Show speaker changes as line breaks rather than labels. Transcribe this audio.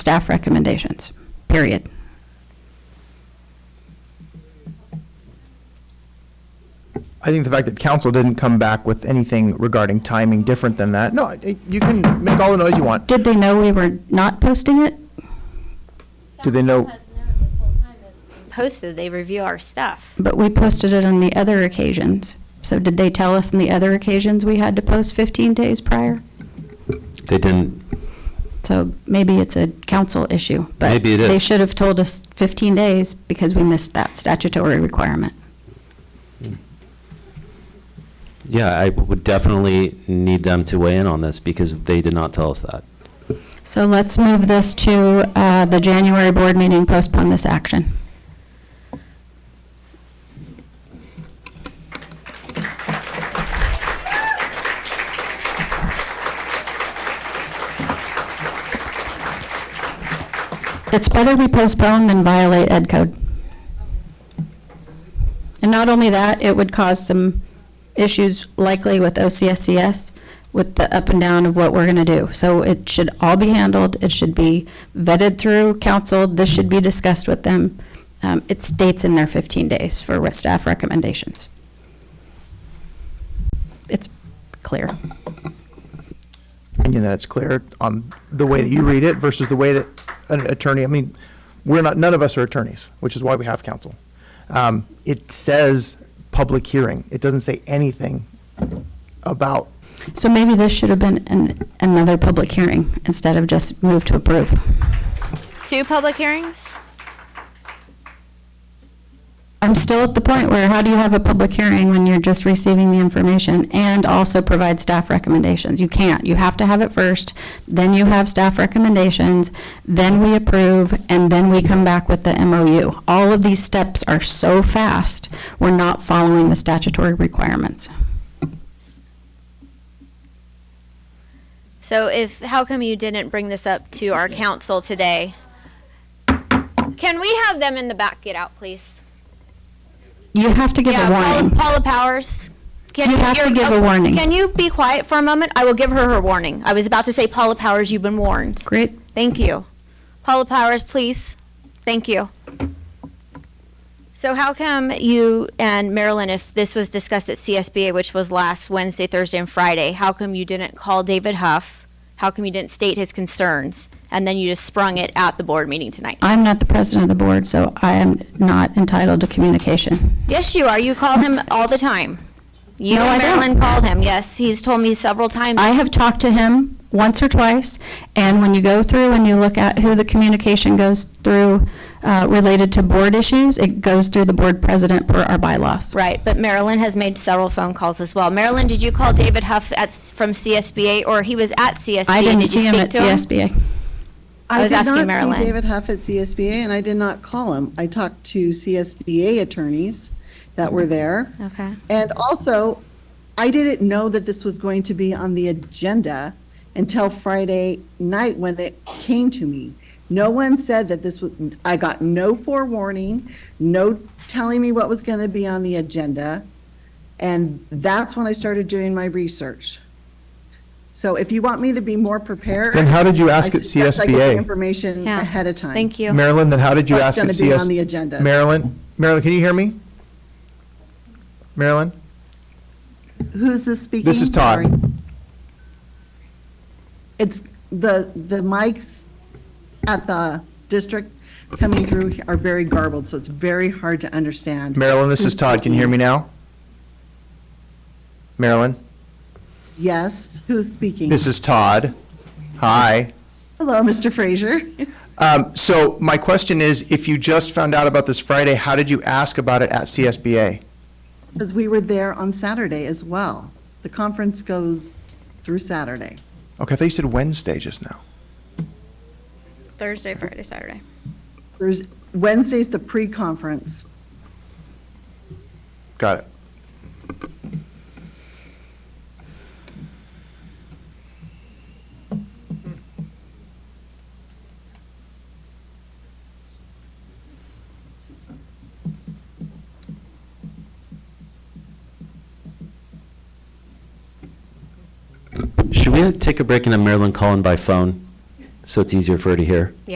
staff recommendations, period.
I think the fact that council didn't come back with anything regarding timing different than that, no, it- you can make all the noise you want.
Did they know we were not posting it?
Do they know-
Council has known this whole time that it's been Posted, they review our stuff.
But we posted it on the other occasions. So did they tell us on the other occasions we had to post 15 days prior?
They didn't,
So maybe it's a council issue, but
Maybe it
they
is.
should have told us 15 days because we missed that statutory requirement.
yeah, I would definitely need them to weigh in on this because they did not tell us that.
So let's move this to uh, the January board meeting, postpone this action. It's better we postpone than violate ed code. And not only that, it would cause some issues likely with OCSCS with the up and down of what we're going to do. So it should all be handled, it should be vetted through council, this should be discussed with them. Um, It states in their 15 days for re- staff recommendations. It's clear.
And that it's clear on the way that you read it versus the way that an attorney, I mean, we're not, none of us are attorneys, which is why we have counsel. Um, It says public hearing. It doesn't say anything about,
So maybe this should have been an- another public hearing instead of just move to approve.
Two public hearings?
I'm still at the point where how do you have a public hearing when you're just receiving the information and also provide staff recommendations? You can't. You have to have it first, then you have staff recommendations, then we approve, and then we come back with the MOU. All of these steps are so fast, we're not following the statutory requirements.
So if, how come you didn't bring this up to our council today? Can we have them in the back get out, please?
You have to give a
Yeah, Paula-
warning.
Paula Powers. Can
You have to
you're-
give a
oh,
warning.
Can you be quiet for a moment? I will give her her warning. I was about to say, Paula Powers, you've been warned.
Great.
Thank you. Paula Powers, please. Thank you. So how come you and Marilyn, if this was discussed at CSBA, which was last Wednesday, Thursday, and Friday, how come you didn't call David Huff? How come you didn't state his concerns? And then you just sprung it at the board meeting tonight?
I'm not the president of the board, so I am not entitled to communication.
Yes, you are. You call him all the time. You
No, I
and
don't.
Marilyn called him, yes. He's told me several times.
I have talked to him once or twice, and when you go through and you look at who the communication goes through uh, related to board issues, it goes through the board president per our bylaws.
Right, but Marilyn has made several phone calls as well. Marilyn, did you call David Huff at, from CSBA, or he was at CSBA?
I didn't
Did you
see him
speak
at
to
CSBA.
I was asking
did not
Marilyn.
see David Huff at CSBA, and I did not call him. I talked to CSBA attorneys that were there.
Okay.
And also, I didn't know that this was going to be on the agenda until Friday night when it came to me. No one said that this was, I got no forewarning, no telling me what was going to be on the agenda. And that's when I started doing my research. So if you want me to be more prepared.
then how did you ask
I
at
suggest I get the
CSBA?
Information
Yeah.
ahead of time.
Thank you.
Marilyn, then how did you
What's
ask at
gonna
CS?
be on the agenda?
Marilyn, Marilyn, can you hear me? Marilyn?
Who's this speaking?
This is Todd.
Sorry. It's the, the mics at the district coming through are very garbled, so it's very hard to understand.
Marilyn, this is Todd. Can you hear me now? Marilyn,
Yes, who's speaking?
this is Todd. Hi.
Hello, Mr. Frazier.
Um, So my question is, if you just found out about this Friday, how did you ask about it at CSBA?
Because we were there on Saturday as well. The conference goes through Saturday.
Okay, I thought you said Wednesday just now.
Thursday, Friday, Saturday.
There's, Wednesday's the pre-conference.
Got it.
Should we take a break and then Marilyn call in by phone so it's easier for her to hear?